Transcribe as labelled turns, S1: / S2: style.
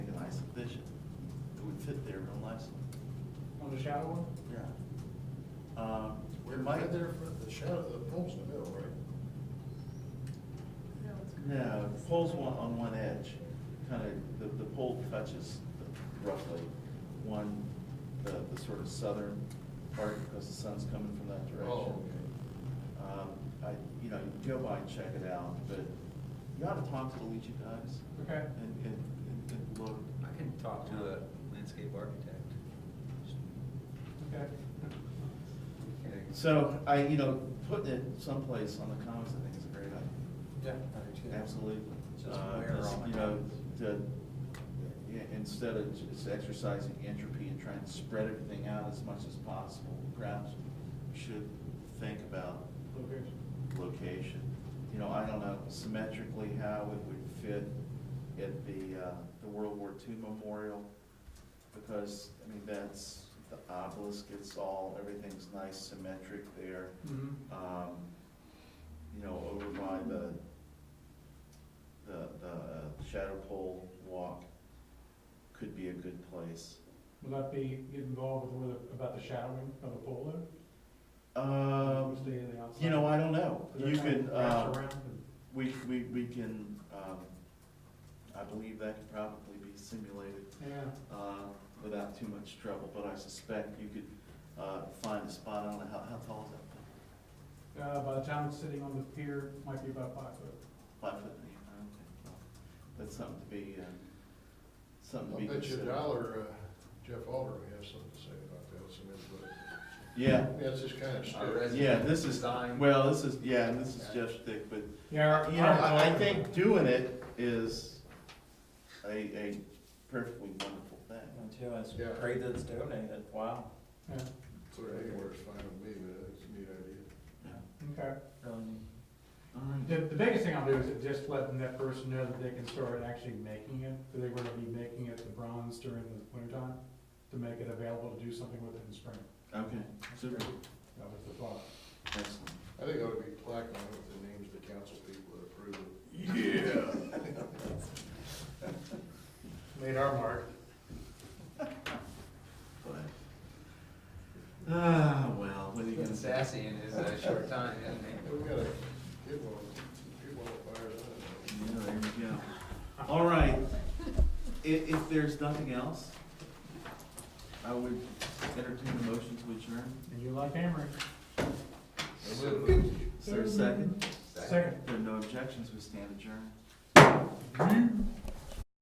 S1: months.
S2: On the shallow one?
S1: Yeah. Um,
S3: We're
S1: Mike-
S3: right there for the shadow, the poles in the middle, right?
S4: No, it's good.
S1: No, the pole's one, on one edge, kind of, the, the pole touches roughly one, the, the sort of southern part, because the sun's coming from that direction.
S3: Oh,
S1: Um, I, you know, you can go by and check it out, but you ought to talk to the Luigi guys
S2: Okay.
S1: and, and, and- and look.
S5: I can talk to a landscape architect.
S2: Okay.
S5: Okay.
S1: So I, you know, putting it someplace on the commons, I think is a great idea.
S5: Yeah.
S1: Absolutely.
S5: Just
S1: Uh,
S5: where
S1: just,
S5: on the
S1: You know,
S5: commons?
S1: to, yeah, instead of just exercising entropy and trying to spread everything out as much as possible, perhaps we should think about
S2: Location.
S1: location. You know, I don't know symmetrically how it would fit at the, uh, the World War II memorial, because, I mean, that's, the obelisk, it's all, everything's nice symmetric there.
S2: Mm-hmm.
S1: Um, you know, over by the, the, the uh, Shadow Pole Walk could be a good place.
S2: Will that be, get involved with, with- about the shadowing of the pole there?
S1: Um,
S2: Stay in the outside?
S1: you know, I don't know.
S2: Is that
S1: You
S2: kind of
S1: could, uh,
S2: wrapped around and-
S1: We, we, we can, um, I believe that could probably be simulated,
S2: Yeah,
S1: uh, without too much trouble, but I suspect you could, uh, find a spot, I don't know, how, how tall is that? thing?
S2: uh, by the time it's sitting on the pier, might be about five foot.
S1: Five foot, eight, I don't think, well, that's something to be, uh, something to
S3: I
S1: be
S3: bet you a
S1: considered.
S3: dollar, uh, Jeff Alder may have something to say about that, some input.
S1: Yeah,
S3: That's just kind of
S5: Our
S3: stuff.
S5: resident
S1: yeah, this is,
S5: design.
S1: well, this is, yeah, and this is Jeff's stick, but
S2: Yeah.
S1: You know, I, I think doing it is a, a perfectly wonderful thing.
S6: too, is
S3: Yeah.
S6: pray that it's donated, wow,
S2: Yeah,
S3: Sort of anywhere is fine with me, but it's a neat idea.
S2: okay.
S6: really neat.
S1: All right.
S2: The, the biggest thing I'll do is just letting that person know that they can start actually making it, that they were gonna be making it the bronze during the wintertime, to make it available to do something with it in spring.
S1: Okay, super,
S2: That was the thought.
S1: excellent.
S3: I think it ought to be plaque on it with the names of the council people that approve it.
S2: Made our mark.
S1: But, ah, well, what are you
S5: He's
S1: gonna
S5: been
S1: say?
S5: sassy in his uh, short time, hasn't he?
S3: We've got to get one, get one that fires
S1: Yeah,
S3: up.
S1: there we go. All right, i- if there's nothing else, I would entertain a motion to adjourn.
S2: And you like hammering.
S1: Is there a second?
S2: Second.
S1: If there are no objections, we stand adjourned.